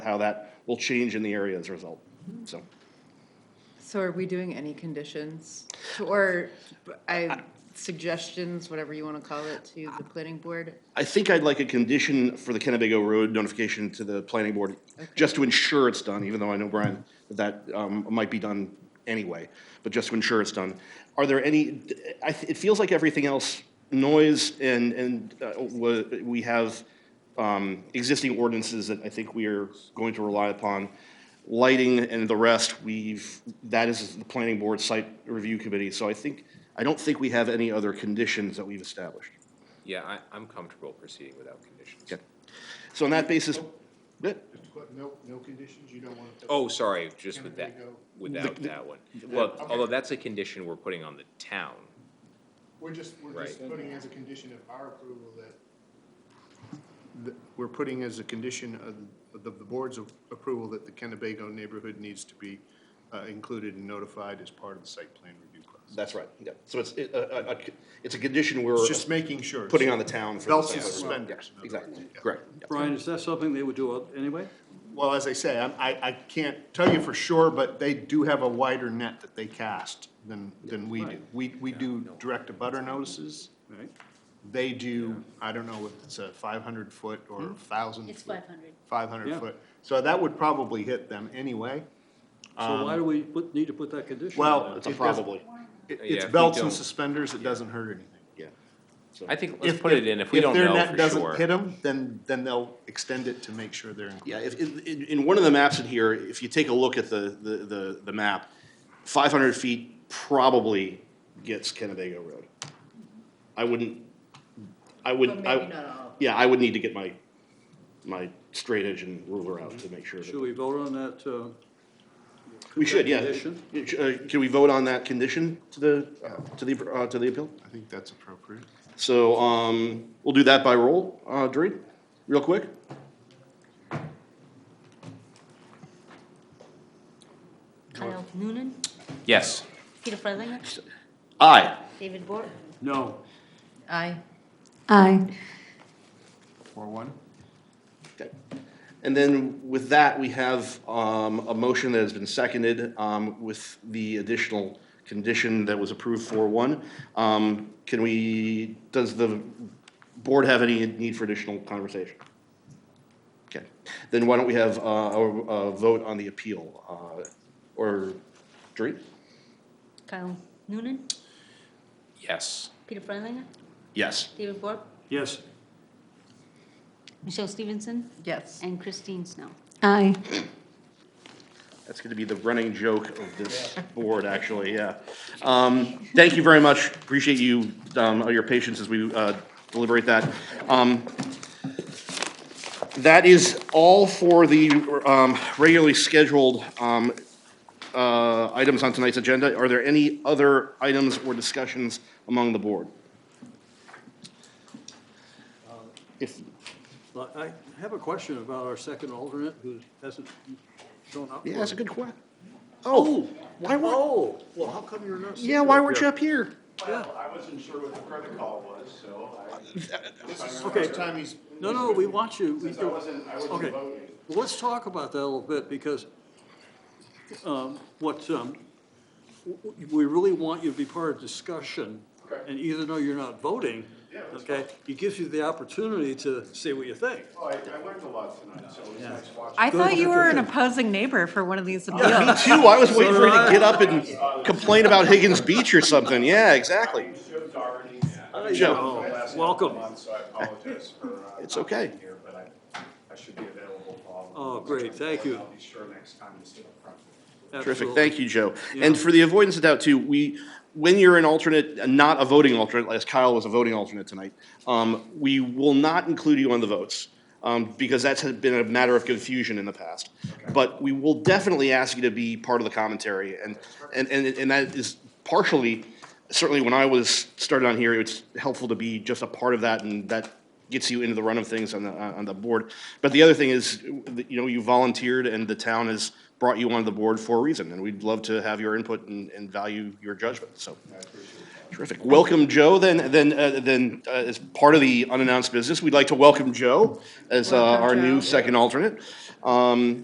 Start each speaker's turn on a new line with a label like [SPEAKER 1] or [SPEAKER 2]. [SPEAKER 1] how that will change in the area as a result. So,
[SPEAKER 2] So are we doing any conditions or I, suggestions, whatever you want to call it, to the planning board?
[SPEAKER 1] I think I'd like a condition for the Kennebago Road notification to the planning board, just to ensure it's done, even though I know, Brian, that that um, might be done anyway, but just to ensure it's done. Are there any, I, th- it feels like everything else, noise and, and uh, wa- we have um, existing ordinances that I think we are going to rely upon. Lighting and the rest, we've, that is the planning board site review committee, so I think, I don't think we have any other conditions that we've established.
[SPEAKER 3] Yeah, I, I'm comfortable proceeding without conditions.
[SPEAKER 1] Okay. So on that basis, yeah,
[SPEAKER 4] But no, no conditions, you don't want to.
[SPEAKER 3] Oh, sorry, just with that,
[SPEAKER 4] Can we go-
[SPEAKER 3] without that one. Well, although that's a condition we're putting on the town.
[SPEAKER 4] We're just, we're just
[SPEAKER 3] Right.
[SPEAKER 4] putting as a condition of our approval that, that we're putting as a condition of, the the board's approval that the Kennebago neighborhood needs to be uh, included and notified as part of the site plan review process.
[SPEAKER 1] that's right, yeah. So it's, it- a- a- a- it's a condition we're
[SPEAKER 4] It's just making sure.
[SPEAKER 1] putting on the town for. the
[SPEAKER 4] Belts and
[SPEAKER 1] site plan review.
[SPEAKER 4] suspenders. in
[SPEAKER 1] Yeah,
[SPEAKER 4] other
[SPEAKER 1] Exactly,
[SPEAKER 4] words. Yeah.
[SPEAKER 1] correct. yeah.
[SPEAKER 5] Brian, is that something they would do anyway?
[SPEAKER 4] Well, as I say, I'm- I, I can't tell you for sure, but they do have a wider net that they cast than, than we do. We, we do direct to butter notices.
[SPEAKER 5] Right?
[SPEAKER 4] They do, I don't know if it's a five hundred foot or
[SPEAKER 3] Hmm?
[SPEAKER 4] a thousand.
[SPEAKER 6] It's 500.
[SPEAKER 4] Five hundred
[SPEAKER 5] Yeah.
[SPEAKER 4] foot. So that would probably hit them anyway.
[SPEAKER 5] So why do we put, need to put that condition? on
[SPEAKER 4] Well,
[SPEAKER 5] that?
[SPEAKER 1] It's a
[SPEAKER 4] It doesn't-
[SPEAKER 1] probably,
[SPEAKER 4] It-
[SPEAKER 3] Yeah, if
[SPEAKER 4] It's
[SPEAKER 3] we
[SPEAKER 4] belts and
[SPEAKER 3] don't-
[SPEAKER 4] suspenders, it doesn't hurt anything.
[SPEAKER 1] yeah.
[SPEAKER 3] I think, let's put it in if we don't
[SPEAKER 4] their
[SPEAKER 3] know
[SPEAKER 4] net
[SPEAKER 3] for
[SPEAKER 4] Doesn't hit
[SPEAKER 3] sure.
[SPEAKER 4] them, then, then they'll extend it to make sure they're included.
[SPEAKER 1] Yeah, if, in, in- in one of the maps in here, if you take a look at the, the, the, the map, five hundred feet probably gets Kennebago Road. I wouldn't, I would,
[SPEAKER 2] But
[SPEAKER 1] I.
[SPEAKER 2] maybe not all.
[SPEAKER 1] Yeah, I would need to get my, my straight edge and ruler out to make sure that.
[SPEAKER 5] Should we vote on that, uh?
[SPEAKER 1] We
[SPEAKER 5] that
[SPEAKER 1] should, yeah.
[SPEAKER 5] condition?
[SPEAKER 1] Uh, Can we vote on that condition to the, to the, uh, to the appeal?
[SPEAKER 4] I think that's appropriate.
[SPEAKER 1] So, um, we'll do that by roll, uh, Dorit, real quick.
[SPEAKER 6] Kyle Noonan,
[SPEAKER 3] Yes,
[SPEAKER 6] Peter Freilinger,
[SPEAKER 1] Aye.
[SPEAKER 6] David Bork.
[SPEAKER 5] No,
[SPEAKER 2] Aye.
[SPEAKER 6] Aye.
[SPEAKER 4] Four one?
[SPEAKER 1] Okay. And then with that, we have, um, a motion that has been seconded, um, with the additional condition that was approved for one. Um, can we, does the board have any need for additional conversation? Okay, then why don't we have, uh, a, a vote on the appeal, uh, or, Dorit?
[SPEAKER 6] Kyle Noonan,
[SPEAKER 3] yes.
[SPEAKER 6] Peter Freilinger,
[SPEAKER 1] Yes.
[SPEAKER 6] David Bork,
[SPEAKER 5] yes,
[SPEAKER 6] Michelle Stevenson,
[SPEAKER 2] Yes.
[SPEAKER 6] and Christine Snow.
[SPEAKER 7] Aye.
[SPEAKER 1] That's going to be the running joke of this board, actually, yeah. Um, Thank you very much. Appreciate you, um, your patience as we uh, deliberate that. Um, That is all for the um, regularly scheduled um, uh, items on tonight's agenda. Are there any other items or discussions among the board? If,
[SPEAKER 5] But I have a question about our second alternate who hasn't shown up.
[SPEAKER 1] yeah, that's a good question.
[SPEAKER 5] Oh,
[SPEAKER 1] Why weren't,
[SPEAKER 5] oh, well, how come you're not?
[SPEAKER 1] yeah, why weren't you up here?
[SPEAKER 8] I wasn't sure what the protocol was, so I,
[SPEAKER 5] Okay,
[SPEAKER 4] Time he's
[SPEAKER 5] no, no, we want you. We
[SPEAKER 8] I
[SPEAKER 5] do-
[SPEAKER 8] wasn't, I wasn't
[SPEAKER 5] Okay,
[SPEAKER 8] voting.
[SPEAKER 5] well, let's talk about that a little bit, because um, what, um, w- w- we really want you to be part of discussion. And even though you're not voting, okay, it gives you the opportunity to say what you think.
[SPEAKER 8] Well, oh, I, I learned a lot tonight, so it was nice watching.
[SPEAKER 2] I thought you were an opposing neighbor for one of these appeals.
[SPEAKER 1] Me too. I was waiting for you to get up and complain about Higgins Beach or something. Yeah, exactly.
[SPEAKER 8] Joe's already.
[SPEAKER 1] Joe.
[SPEAKER 8] I've been last
[SPEAKER 5] Welcome.
[SPEAKER 8] month, So I apologize for. uh,
[SPEAKER 1] It's
[SPEAKER 8] not
[SPEAKER 1] okay.
[SPEAKER 8] being Here, but I, I should be available for all. of
[SPEAKER 5] Oh,
[SPEAKER 8] them.
[SPEAKER 5] great, thank you.
[SPEAKER 8] I'll be sure next time to sit up front.
[SPEAKER 1] Terrific.
[SPEAKER 5] Absolutely.
[SPEAKER 1] Thank you, Joe. And for the avoidance of doubt too, we, when you're an alternate, not a voting alternate, as Kyle was a voting alternate tonight, um, we will not include you on the votes, um, because that's had been a matter of confusion in the past. But we will definitely ask you to be part of the commentary and, and, and, and that is partially, certainly when I was started on here, it's helpful to be just a part of that and that gets you into the run of things on the, uh, on the board. But the other thing is, you know, you volunteered and the town has brought you onto the board for a reason, and we'd love to have your input and, and value your judgment, so. Terrific. Welcome, Joe, then, then, uh, then, uh, as part of the unannounced business, we'd like to welcome Joe as uh, our
[SPEAKER 2] Welcome, Joe.
[SPEAKER 1] new second alternate. Um,